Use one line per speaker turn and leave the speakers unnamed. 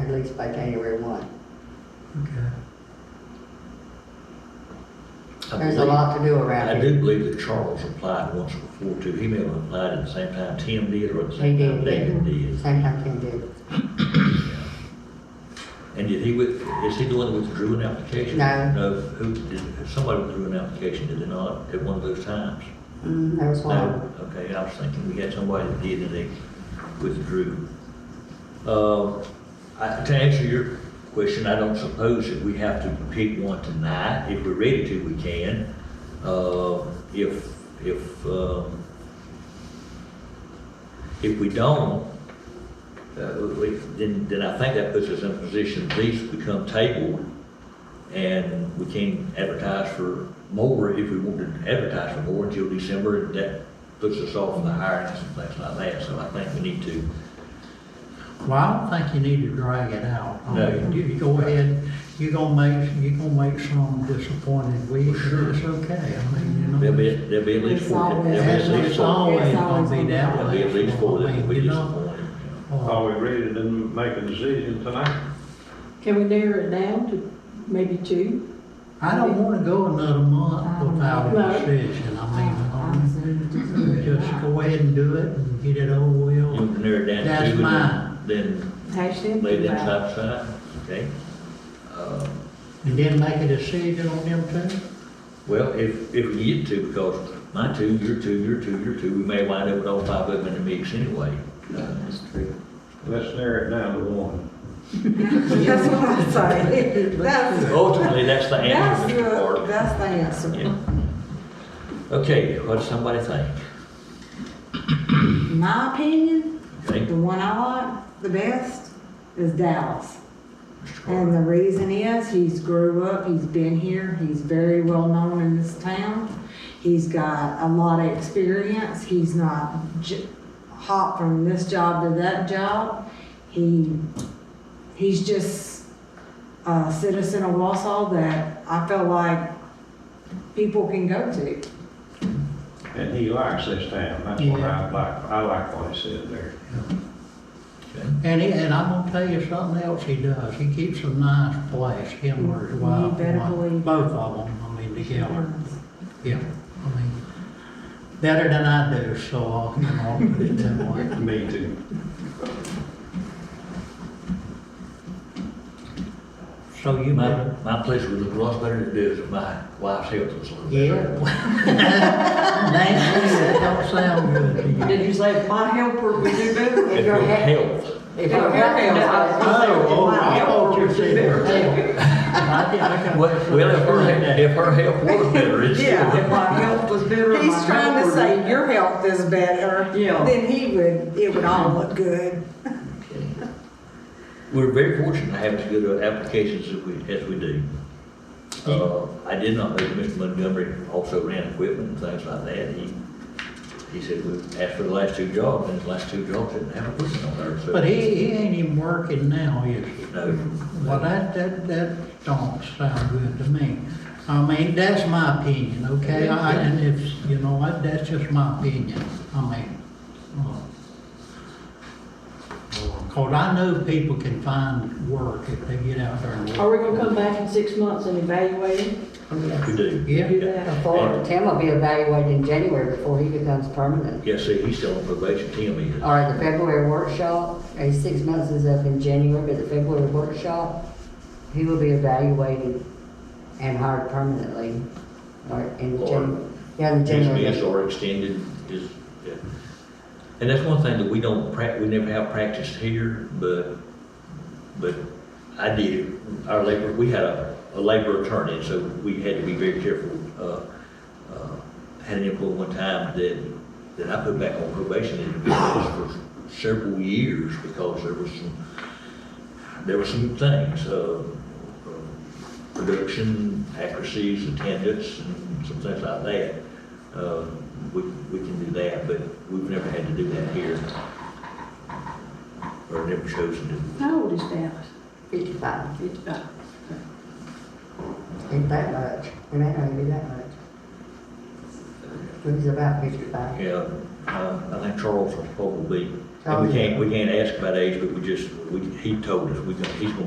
it's by January one.
Okay.
I
There's a
believe-
lot to do
I
around here.
do believe that Charles applied once before too. He may have applied at the same time Tim did or at the
They
same
did,
time David
yeah.
did.
Same time Tim did.
And did he with, is he the one that withdrew an application?
No.
who, did, somebody withdrew an application, did they not, at one of those times?
Mm, there was one.
No, Oh, okay, I was thinking we had somebody that did and they withdrew. Uh, I, to answer your question, I don't suppose that we have to pick one tonight. If we're ready to, we can. Uh, if, if, um, if we don't, uh, we- then, then I think that puts us in a position, these become tabled, and we can advertise for more if we want to advertise for more until December, and that puts us off on the hiring and things like that, so I think we need to.
Well, I don't think you need to drag it out. I
No.
mean, You you go ahead, you're gonna make, you're gonna make some disappointed weeks, but it's okay, I mean, you know.
There'll be, there'll be at least four, there'll be at least
It's
four,
always
It's
gonna
always
be that
there'll
way.
be at least four
I
that
mean,
will be
you know,
disappointed.
uh,
Are we ready to make a decision tonight?
Can we narrow it down to maybe two?
I don't wanna go another
Uh,
month without a
No.
decision, I mean, um,
uh.
just
Actually,
go ahead and do it and get it over
You
with.
can narrow it down to
That's
two,
mine.
and then, then lay them side by side, okay? Um,
And then make a decision on them two.
Well, if, if we get to, because my two, your two, your two, your two, we may wind up with all five of them in the mix anyway. Uh,
That's true.
Let's narrow it down to one.
That's what I'm saying. That's,
Ultimately, that's the
that's
answer,
the,
Mr. Carter.
that's the answer.
Yeah. Okay, what does somebody think?
My opinion,
Okay,
the one I like the best is Dallas.
Mr.
And
Carter.
the reason is, he's grew up, he's been here, he's very well known in this town. He's got a lot of experience, he's not j- hot from this job to that job. He, he's just a citizen of Wausau that I feel like people can go to.
And he likes this town, that's what I like, I like what he said there.
Okay.
And he, and I'm gonna tell you something else he does, he keeps a nice place, him or his
You
wife.
better
one-
believe it.
Both of them, I mean, together, yeah, I mean, better than I do, so, I'll, you know, I'll put it that way.
Me too.
So you
My,
better,
my place would look a lot better than it does if my wife's health was a little better.
yeah. Nancy, that don't sound good to you.
Did you say my helper would do better?
If your health,
If your helper.
Oh, oh, I thought you said there. I did, I got.
well, if her, if her health was better, it's
Yeah, if
still.
my health was better. my
He's trying to
helper
say
would-
your health is better.
Yeah.
Then he would, it would all look good.
Okay. We're very fortunate to have as good of applications as we, as we do. Uh, I did not know that Mr. Montgomery also ran equipment and things like that. He, he said, we asked for the last two jobs, and his last two jobs didn't have equipment on there, so.
But he, he ain't even working now, is he? Well,
No.
that, that, that don't sound good to me. I mean, that's my opinion, okay? I, and it's, you know, what, that's just my opinion. I mean, uh, cause I know people can find work if they get out there and
Are
work.
we gonna come back in six months and evaluate it?
Yeah.
We do.
Yeah.
Do that?
Before, Tim will be evaluated in January before he becomes permanent.
Yes, see, he's still on probation, Tim is.
All right, the February workshop, a six months is up in January, but the February workshop, he will be evaluated and hired permanently. Or in
Or-
January. Yeah, in
Dismissed
January.
or extended is, yeah. and that's one thing that we don't prac, we never have practiced here, but, but I did, it. our labor, we had a, a labor attorney, so we had to be very careful. Uh, uh, Had an employee one time that, that I put back on probation and it was for several years because there was some, there were some things, uh, production, accuracies, attendance, and some things like that. Uh, We, we can do that, but we've never had to do that here. Or never chosen to.
How old is Dallas?
Fifty-five,
Fifty-five.
ain't that much, it may not even be that much. he's about fifty-five.
Yeah, uh, I think Charles will probably be,
Oh,
and we
yeah.
can't, we can't ask about age, but we just, we, he told us, we, he's gonna be